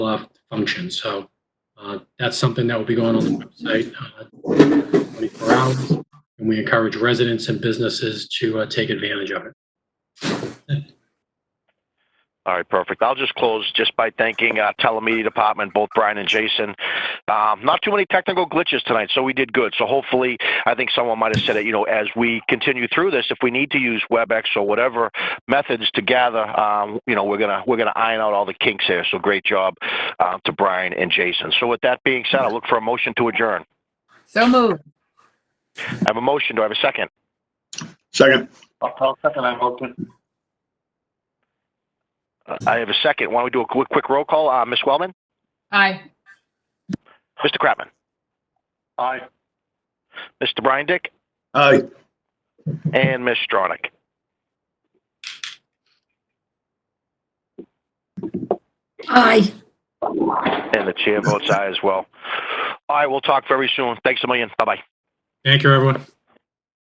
off function. So uh, that's something that will be going on the website uh, 24 hours. And we encourage residents and businesses to uh, take advantage of it. All right, perfect. I'll just close just by thanking uh, telemedia department, both Brian and Jason. Um, not too many technical glitches tonight, so we did good. So hopefully, I think someone might have said it. You know, as we continue through this, if we need to use WebEx or whatever methods to gather, um, you know, we're gonna we're gonna iron out all the kinks here. So great job uh, to Brian and Jason. So with that being said, I look for a motion to adjourn. So moved. I have a motion. Do I have a second? Second. Uh, I have a second. Why don't we do a quick, quick roll call? Uh, Ms. Wellman, Aye. Mr. Kratman, Aye. Mr. Brian Dick. Aye. And Ms. Stronach. Aye. And the chair votes aye as well. All right, we'll talk very soon. Thanks a million. Bye-bye. Thank you, everyone.